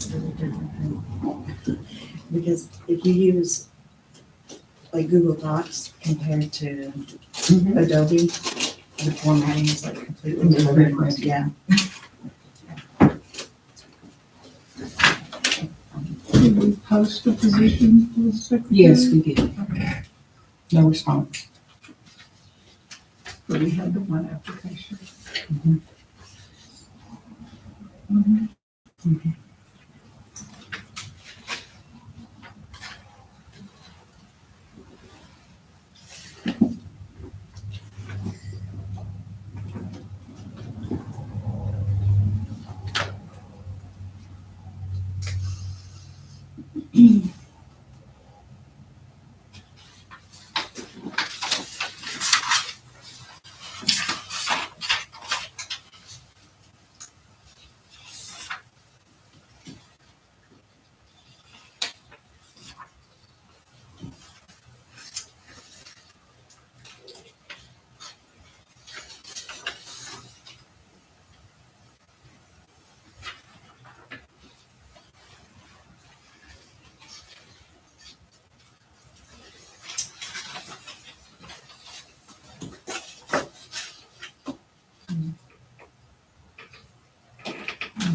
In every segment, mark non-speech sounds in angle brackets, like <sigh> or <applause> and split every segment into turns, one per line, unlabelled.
totally different thing. Because if you use like Google Docs compared to Adobe, the formatting is like completely different, Mm-hmm. yeah.
Did we post the position for the secretary?
Yes, we did. No response.
But we had the one application.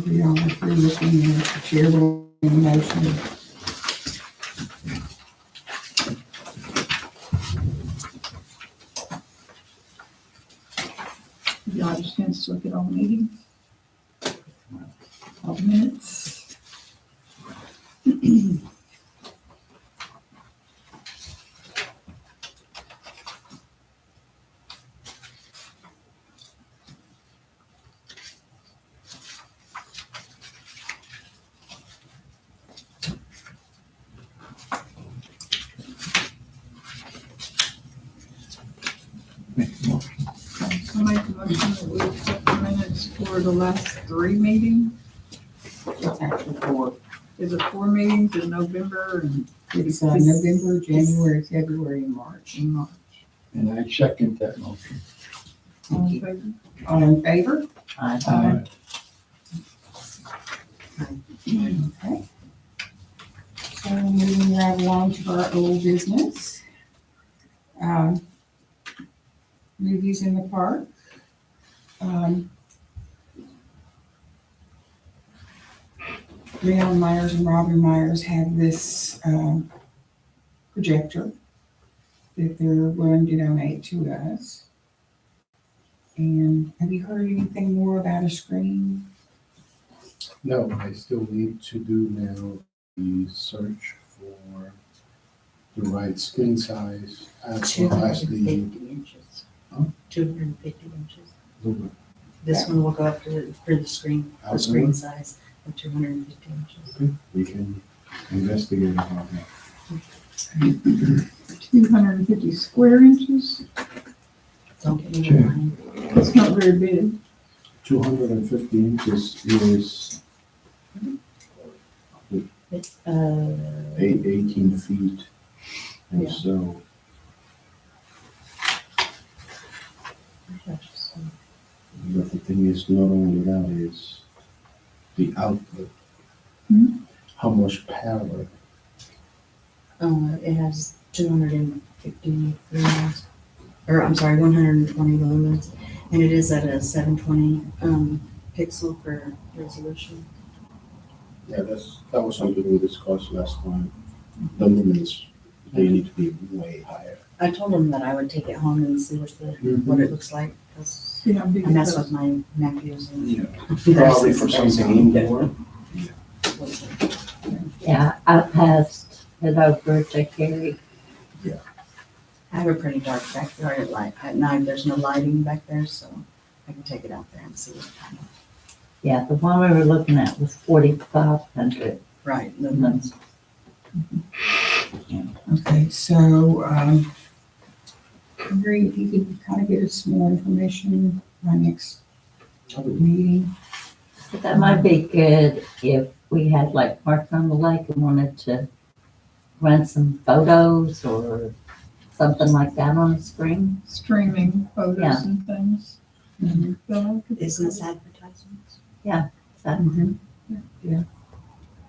We all were through looking at the chair will motion.
Y'all just gonna look at all meetings? All minutes? I make a motion that we accept the minutes for the last three meetings.
It's actually four.
Is it four meetings in November and
It's uh, November, January, February, and March.
in March?
And I second that motion.
All in favor?
All in favor?
Aye.
Okay. So moving right along to our old business. Um, Movies in the park. Um, Leon Myers and Robin Myers have this um, projector that they're willing to donate to us. And have you heard anything more about a screen?
No, I still need to do now the search for the right skin size as
Two
well
hundred
as
and
the.
fifty inches.
Huh?
Two hundred and fifty inches.
the-
This one will go up to, the- for the screen, the screen size of two hundred and fifty inches.
Okay, We can investigate about that.
Two hundred and fifty square inches?
Don't get me
Sure.
wrong.
It's not very big.
Two hundred and fifty inches is
It's, uh,
eight, eighteen feet. And so
gosh, so-
But the thing is, not only that is the output.
Hmm.
How much power?
Uh, it has two hundred and fifty lumens, or I'm sorry, one hundred and twenty lumens, and it is at a seven twenty, um, pixel per resolution.
Yeah, that's, that was something we discussed last time. The lumens, they need to be way higher.
I told him that I would take it home and see what the, what it looks like, 'cause
See how big
I
it
mess
is.
with my nephews and.
Yeah,
<laughs>
probably for something indoor.
Yeah, I passed it over to Carrie.
I have a pretty dark backyard at light, at night, there's no lighting back there, so I can take it out there and see what kind of,
Yeah, the one we were looking at was forty-five hundred
right, lumens.
lumens.
Okay, so, um, Henry, if you could kind of get us more information by next meeting.
But that might be good if we had like Park on the Lake and wanted to run some photos or something like that on a screen.
Streaming photos
Yeah.
and things.
Mhm.
But I could-
Business advertisements.
Is that-
Mhm.
Yeah.